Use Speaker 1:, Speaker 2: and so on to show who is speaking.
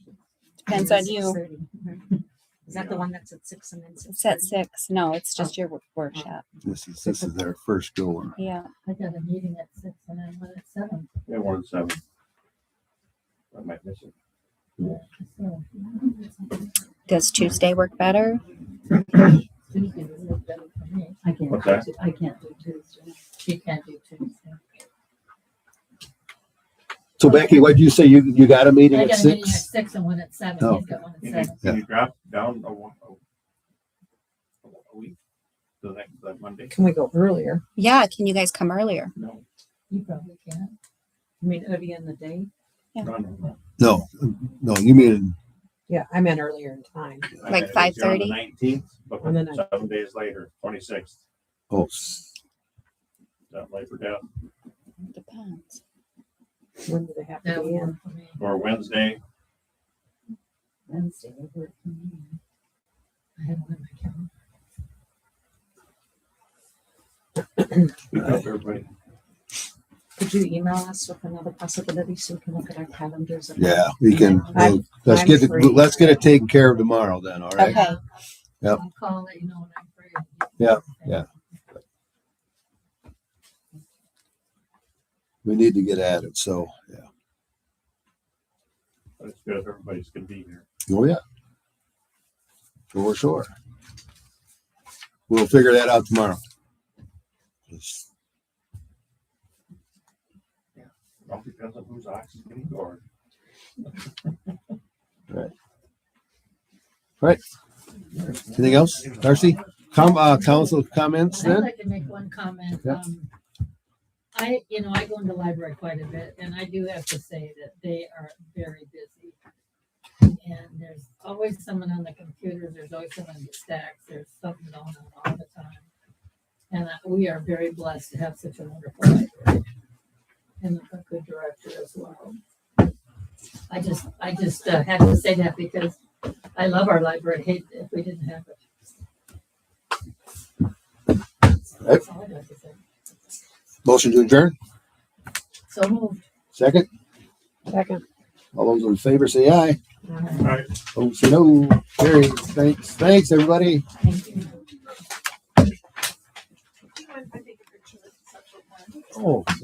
Speaker 1: depends on you.
Speaker 2: 6:30. Is that the one that's at six and then six?
Speaker 1: It's at six. No, it's just your wor- workshop.
Speaker 3: This is, this is their first go.
Speaker 1: Yeah.
Speaker 4: I got a meeting at six and then one at seven.
Speaker 5: Yeah, one and seven. I might miss it.
Speaker 4: so
Speaker 1: Does Tuesday work better?
Speaker 4: Tuesday would work better for me.
Speaker 2: I can't,
Speaker 5: Okay.
Speaker 2: do- I can't do Tuesday.
Speaker 4: She can't do Tuesday.
Speaker 3: So Becky, what'd you say? You, you got a meeting
Speaker 4: I
Speaker 3: at
Speaker 4: got a meeting at
Speaker 3: six?
Speaker 4: six and one at seven.
Speaker 3: Oh.
Speaker 4: He's got one at
Speaker 5: Can you,
Speaker 4: seven.
Speaker 5: can you drop down a one, a- a week? The next, that Monday?
Speaker 6: Can we go earlier?
Speaker 1: Yeah. Can you guys come earlier?
Speaker 5: No,
Speaker 4: You probably can.
Speaker 2: I mean, early in the day.
Speaker 5: no, no, no.
Speaker 3: No, no, you mean,
Speaker 6: Yeah, I meant earlier in time.
Speaker 5: I
Speaker 1: Like
Speaker 5: mean, it's here on
Speaker 1: 5:30?
Speaker 5: The nineteenth, but
Speaker 6: On the 19th.
Speaker 5: seven days later, twenty-sixth,
Speaker 3: oh, s-
Speaker 5: that Labor Day,
Speaker 1: Depends.
Speaker 6: When do they have to
Speaker 4: That
Speaker 6: be in?
Speaker 4: would work for me.
Speaker 5: or Wednesday,
Speaker 4: Wednesday would work for me. I have one in my calendar.
Speaker 5: speak up everybody.
Speaker 2: Could you email us with another possibility so we can look at our calendars? and-
Speaker 3: yeah, we can,
Speaker 6: I'm-
Speaker 3: we'll- let's
Speaker 6: I'm
Speaker 3: get it,
Speaker 6: free.
Speaker 3: let's get it taken care of tomorrow then, all right?
Speaker 1: Okay.
Speaker 3: Yep.
Speaker 4: I'll call and let you know when I'm free.
Speaker 3: Yeah, yeah. We need to get at it, so, yeah.
Speaker 5: But it's good if everybody's gonna be here.
Speaker 3: Oh, yeah. For sure. We'll figure that out tomorrow. Just-
Speaker 5: It all depends on who's oxygen or.
Speaker 3: Anything else? Darcy? Com, uh, council comments
Speaker 4: I'd
Speaker 3: then?
Speaker 4: like to make one comment.
Speaker 3: Yeah.
Speaker 4: Um, I, you know, I go into the library quite a bit and I do have to say that they are very busy. And there's always someone on the computer, there's always someone in the stacks, there's something going on all the time. And uh, we are very blessed to have such a wonderful library. And a good director as well. I just, I just uh, have to say that because I love our library, hate if we didn't have it. That's all I got to say.
Speaker 3: Motion to adjourn?
Speaker 4: So moved.
Speaker 3: Second?
Speaker 6: Second.
Speaker 3: All those in favor say aye.
Speaker 6: Uh,
Speaker 5: All right,
Speaker 3: Oh, say no. Carry. Thanks, thanks, everybody.
Speaker 4: Thank you.
Speaker 3: Oh,